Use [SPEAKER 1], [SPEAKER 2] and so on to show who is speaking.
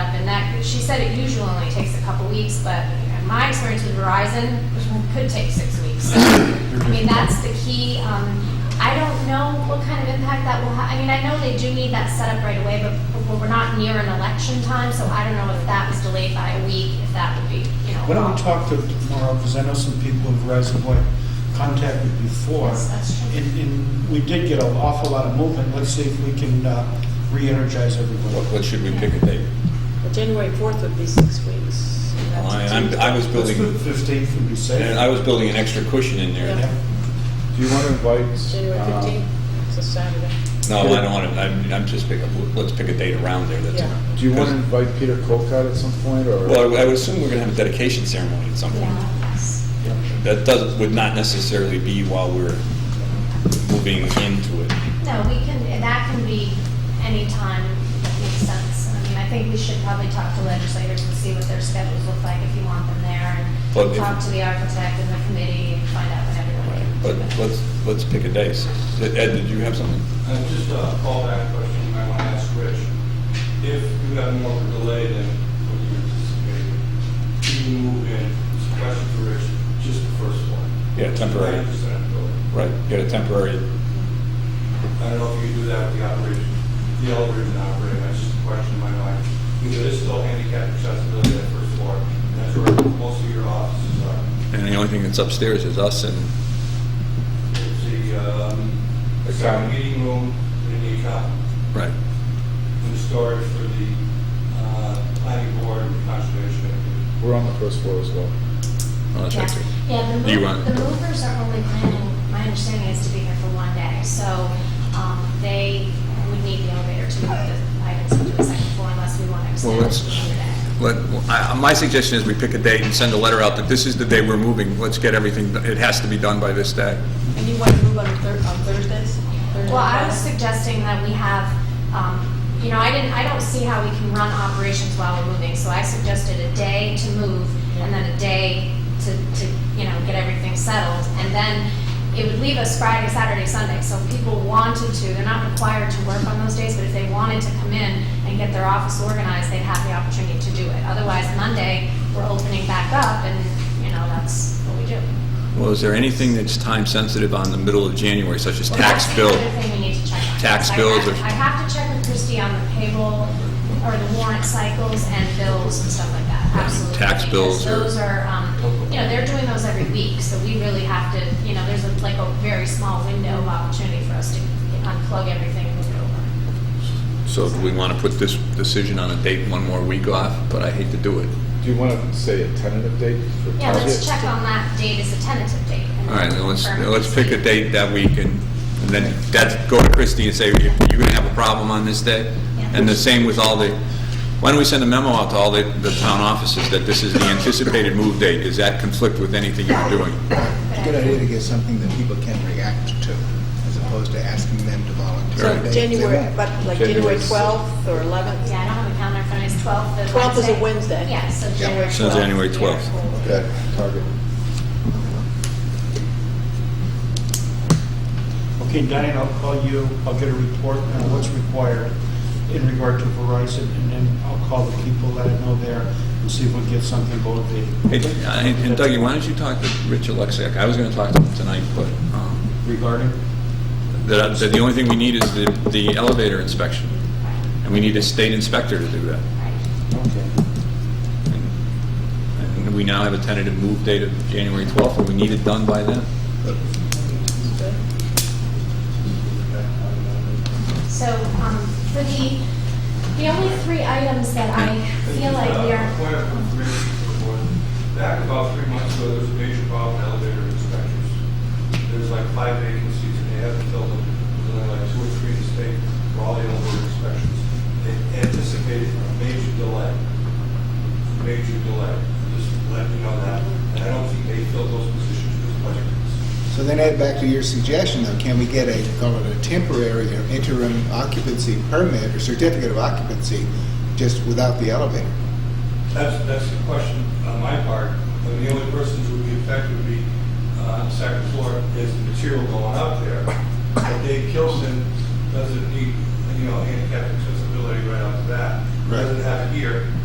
[SPEAKER 1] she said it usually only takes a couple weeks, but my experience with Verizon it could take six weeks. I mean, that's the key. Um, I don't know what kind of impact that will have. I mean, I know they do need that set up right away, but, but we're not near an election time, so I don't know if that was delayed by a week, if that would be, you know.
[SPEAKER 2] Why don't we talk to tomorrow, because I know some people of Verizon who I contacted before.
[SPEAKER 1] Yes, that's true.
[SPEAKER 2] And, and we did get an awful lot of movement, let's see if we can, uh, re-energize
[SPEAKER 3] What,
[SPEAKER 2] everyone.
[SPEAKER 3] what should we pick a date?
[SPEAKER 4] Well, January 4th would be six weeks. That's
[SPEAKER 3] Oh, I, I'm- I was
[SPEAKER 2] Let's do
[SPEAKER 3] building,
[SPEAKER 2] the fifteenth and be safe.
[SPEAKER 3] and I was building an extra cushion in there.
[SPEAKER 4] Yeah.
[SPEAKER 5] Do you want to invite?
[SPEAKER 4] January
[SPEAKER 5] um,
[SPEAKER 3] Uh-huh.
[SPEAKER 4] 15th, it's a Saturday.
[SPEAKER 3] No, I don't want to, I'm, I'm just picking, let's pick a date around there that's.
[SPEAKER 4] Yeah.
[SPEAKER 5] Do you want to invite Peter Colcott at some point, or?
[SPEAKER 3] Well, I would assume we're going to have a dedication ceremony at some point.
[SPEAKER 1] Yeah, yes.
[SPEAKER 3] That does, would not necessarily be while we're moving into it.
[SPEAKER 1] No, we can, that can be any time that makes sense. I mean, I think we should probably talk to legislators and see what their schedules look like if you want them there.
[SPEAKER 3] But
[SPEAKER 1] And
[SPEAKER 3] if-
[SPEAKER 1] talk to the architect and the committee and find out when
[SPEAKER 3] But
[SPEAKER 1] everyone can. do it.
[SPEAKER 3] let's, let's pick a date. Ed, did you have something?
[SPEAKER 6] Uh, Just a callback question you might want to ask Rich. If you have more of a delay than what you anticipated, do you move in, it's a question for Rich, just the first one?
[SPEAKER 3] Yeah, temporary.
[SPEAKER 6] Ninety percent of the building.
[SPEAKER 3] Right, get a temporary,
[SPEAKER 6] I don't know if you can do that with the operation, the elevator's not operating, that's just a question in my mind. Because it is still handicapped accessibility at first floor, and that's where most of your offices are.
[SPEAKER 3] and the only thing that's upstairs is us and,
[SPEAKER 6] It's the, um,
[SPEAKER 3] The
[SPEAKER 6] second
[SPEAKER 3] common.
[SPEAKER 6] meeting room and the common.
[SPEAKER 3] right.
[SPEAKER 6] and storage for the uh, planning board and conservation.
[SPEAKER 5] We're on the first floor as well.
[SPEAKER 3] Oh, that's
[SPEAKER 1] Yeah.
[SPEAKER 3] right, too.
[SPEAKER 1] Yeah, the
[SPEAKER 3] Do you
[SPEAKER 1] mov-
[SPEAKER 3] want-
[SPEAKER 1] the movers are only planning, my understanding is to be here for one day. So um, they would need the elevator to move the items into the second floor unless we want to extend
[SPEAKER 3] Well,
[SPEAKER 1] it
[SPEAKER 3] let's-
[SPEAKER 1] to another day.
[SPEAKER 3] Let, I, my suggestion is we pick a date and send a letter out that this is the day we're moving. Let's get everything, it has to be done by this day.
[SPEAKER 4] And you want to move on Thur- on Thursdays? Thursday,
[SPEAKER 1] Well, I was
[SPEAKER 4] Friday?
[SPEAKER 1] suggesting that we have, um, you know, I didn't, I don't see how we can run operations while we're moving, so I suggested a day to move, and then a day to, to, you know, get everything settled, and then it would leave us Friday, Saturday, Sunday, so if people wanted to, they're not required to work on those days, but if they wanted to come in and get their office organized, they'd have the opportunity to do it. Otherwise, Monday, we're opening back up, and, you know, that's what we do.
[SPEAKER 3] Well, is there anything that's time sensitive on the middle of January, such as
[SPEAKER 1] Well,
[SPEAKER 3] tax
[SPEAKER 1] that's the
[SPEAKER 3] bill?
[SPEAKER 1] other thing we need to check on.
[SPEAKER 3] Tax
[SPEAKER 1] I
[SPEAKER 3] bills
[SPEAKER 1] have-
[SPEAKER 3] or-
[SPEAKER 1] I have to check with Christie on the payroll or the warrant cycles and bills and stuff like that,
[SPEAKER 3] Right,
[SPEAKER 1] absolutely.
[SPEAKER 3] tax bills
[SPEAKER 1] Because
[SPEAKER 3] or-
[SPEAKER 1] Those are, um, you know, they're doing those every week, so we really have to, you know, there's a- like a very small window of opportunity for us to unplug everything and move it over.
[SPEAKER 3] So do we want to put this decision on a date one more week off? But I hate to do it.
[SPEAKER 5] Do you want to say a tentative date for
[SPEAKER 1] Yeah, let's
[SPEAKER 5] Target?
[SPEAKER 1] check on that date as a tentative date. and
[SPEAKER 3] All right,
[SPEAKER 1] then
[SPEAKER 3] then let's,
[SPEAKER 1] confirm
[SPEAKER 3] let's pick a
[SPEAKER 1] it.
[SPEAKER 3] date that week and, and then that's, go to Christie and say, you're going to have a problem on this day?
[SPEAKER 1] Yeah.
[SPEAKER 3] And the same with all the, why don't we send a memo out to all the, the town offices that this is the anticipated move date? Does that conflict with anything you're doing?
[SPEAKER 7] Good idea to get something that people can react to, as opposed to asking them to volunteer.
[SPEAKER 3] Right.
[SPEAKER 7] They-
[SPEAKER 4] So
[SPEAKER 7] they
[SPEAKER 4] January,
[SPEAKER 7] won't.
[SPEAKER 4] but like
[SPEAKER 5] January
[SPEAKER 4] January 12th or
[SPEAKER 1] Yeah,
[SPEAKER 4] 11th?
[SPEAKER 1] I don't have a calendar in front of me, it's 12th, the Wednesday.
[SPEAKER 4] 12th is a Wednesday.
[SPEAKER 1] Yeah, so
[SPEAKER 7] Yeah.
[SPEAKER 1] January 12th.
[SPEAKER 3] So January 12th.
[SPEAKER 5] Okay, Target.
[SPEAKER 2] Okay, Diane, I'll call you, I'll get a report on what's required in regard to Verizon, and then I'll call the people that I know there and see if we can get something motivated.
[SPEAKER 3] Hey, uh, And Dougie, why don't you talk to Rich Alexiak? I was going to talk to him tonight, but, um,
[SPEAKER 2] Regarding?
[SPEAKER 3] that, that the only thing we need is the, the elevator inspection. And we need a state inspector to do that.
[SPEAKER 1] Right.
[SPEAKER 2] Okay.
[SPEAKER 3] And and we now have a tentative move date of January 12th, and we need it done by then.
[SPEAKER 1] So, um, for the, the only three items that I feel like we
[SPEAKER 6] Uh,
[SPEAKER 1] are,
[SPEAKER 6] Point of information for the board. Back about three months ago, there was a major problem with elevator inspectors. There's like five vacancies and they haven't filled them. There's only like two or three in the state for all the elevator inspections. They anticipated a major delay, major delay. Just let me know that. And I don't think they filled those positions with budgets.
[SPEAKER 7] So then add back to your suggestion, though, can we get a, call it a temporary or interim occupancy permit or certificate of occupancy, just without the elevator?
[SPEAKER 6] That's, that's the question on my part. And the only persons who would be affected would be uh, on the second floor is the material going up there. But Dave Kilson doesn't need, you know, handicap accessibility right off the bat.
[SPEAKER 7] Right.
[SPEAKER 6] Doesn't have it here.